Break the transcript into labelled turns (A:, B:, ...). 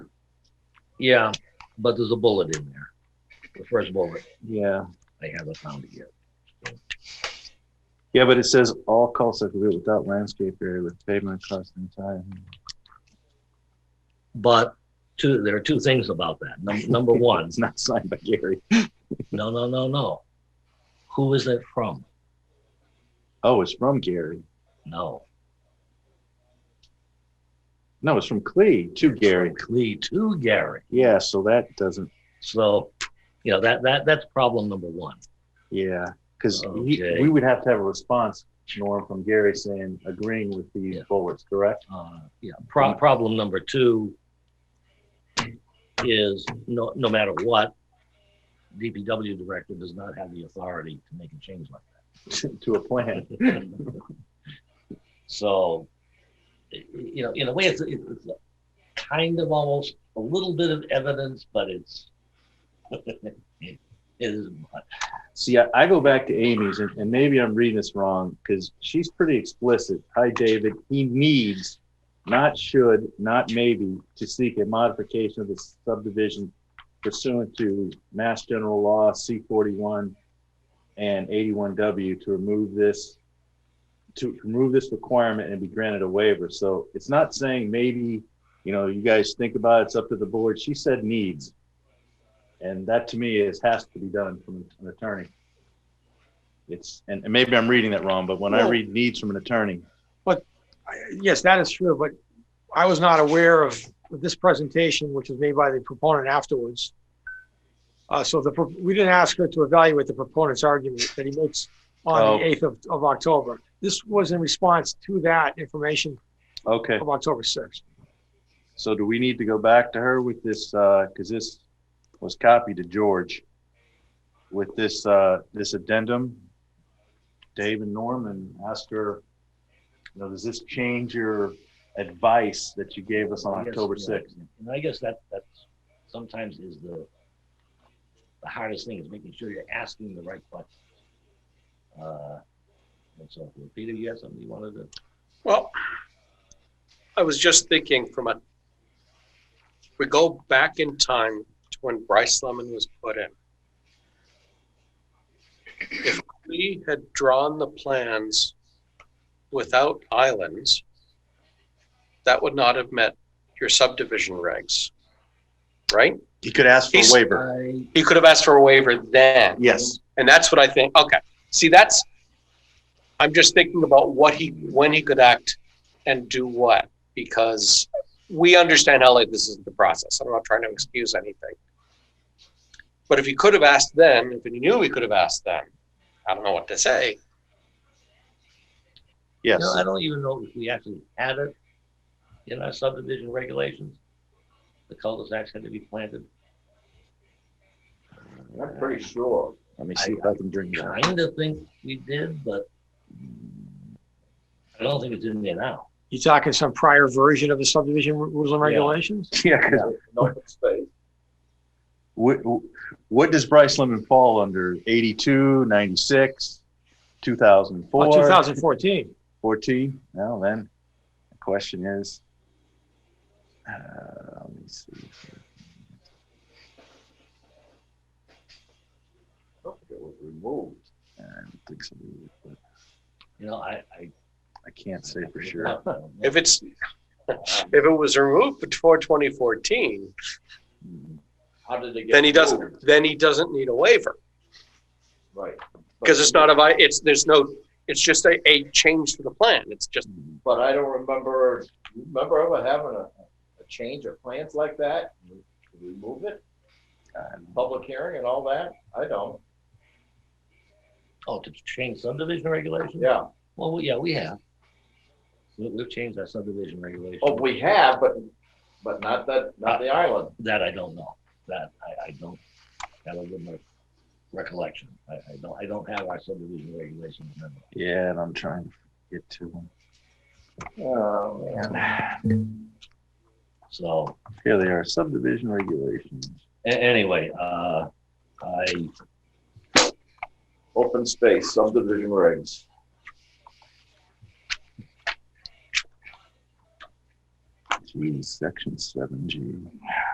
A: Yeah, but there's a bullet in there. The first bullet,
B: Yeah.
A: I haven't found it yet.
B: Yeah, but it says all costs are complete without landscape area with pavement across the entire.
A: But two, there are two things about that. Num- Number one,
B: It's not signed by Gary.
A: no, no, no, no. Who is it from?
B: Oh, it's from Gary.
A: No.
B: No, it's from Clee to Gary.
A: Lee to Gary.
B: Yeah, so that doesn't.
A: So, you know, that, that, that's problem number one.
B: Yeah, because
A: Okay.
B: we would have to have a response, Norm, from Gary saying agreeing with these
A: Yeah.
B: bullets, correct?
A: Uh, yeah, pro- problem number two is no, no matter what, DPW director does not have the authority to make a change like
B: to a plan.
A: that. So, y- you know, in a way, it's, it's kind of almost a little bit of evidence, but it's, it is,
B: See, I, I go back to Amy's, and, and maybe I'm reading this wrong because she's pretty explicit. Hi, David. He needs, not should, not maybe, to seek a modification of the subdivision pursuant to Mass General Law C41 and 81W to remove this to remove this requirement and be granted a waiver. So it's not saying maybe, you know, you guys think about it, it's up to the board. She said needs. And that to me is has to be done from an attorney. It's and, and maybe I'm reading that wrong, but when I
C: Well-
B: read needs from an attorney,
C: I- Yes, that is true, but I was not aware of this presentation, which was made by the proponent afterwards. Uh, so the, pro- we didn't ask her to evaluate the proponent's argument that he makes on
B: Oh.
C: the 8th of, of October. This was in response to that information
B: okay.
C: of October 6th.
B: So do we need to go back to her with this, uh, cause this was copied to George with this, uh, this addendum, Dave and Norm and ask her, you know, does this change your advice that you gave us on
A: Yes,
B: October
A: yeah.
B: sixth?
A: And I guess that, that's sometimes is the, the hardest thing is making sure you're asking the right questions. Uh, and so, forth. Peter, you had something you wanted to,
D: Well, I was just thinking from a, if we go back in time to when Bryce Lemon was put in. If we had drawn the plans without islands, that would not have met your subdivision regs, right?
B: He could ask for a
D: He's-
B: waiver.
A: I,
D: He could have asked for a waiver then.
B: Yes.
D: And that's what I think, okay, see, that's, I'm just thinking about what he, when he could act and do what, because we understand how late this is in the process, I'm not trying to excuse anything. But if he could have asked then, if he knew he could have asked then, I don't know what to say.
A: you know,
B: Yes.
A: I don't even know if we actually had it in our subdivision regulations. The cul-de-sacs had to be planted.
B: I'm pretty sure. Let me see if I can drink that.
A: Kind of think we did, but I don't think it's in there now.
C: You talking some prior version of the subdivision rules and
A: Yeah.
C: regulations?
B: Yeah. 'cause- What, what does Bryce Lemon fall under? 82, 96, two thousand
C: Oh,
B: four?
C: 2014.
B: 14. Now then, the question is, uh, let me see. It was removed. I don't think so, either, but
A: You know, I, I.
B: I can't say for sure.
D: If it's, if it was removed before twenty fourteen,
A: How did they get?
D: then he doesn't, then he doesn't need a waiver.
A: Right.
D: Because it's not a, vi- it's, there's no, it's just a, a change to the plan. It's just,
E: But I don't remember, remember ever having a, a change of plans like that? Remove it, public hearing and all that? I don't,
A: Oh, to change subdivision regulations?
E: yeah.
A: Well, we- yeah, we have. We- We've changed our subdivision regulation.
E: Oh, we have, but, but not that, not the island.
A: Uh, That I don't know. That I, I don't, that'll give my recollection. I, I don't, I don't have our subdivision regulations. in memory.
B: Yeah, and I'm trying to get to them.
E: Oh, man.
A: So,
B: Here they are, subdivision regulations.
A: a- anyway, uh, I,
E: Open space, subdivision regs.
B: Geez, section seven G.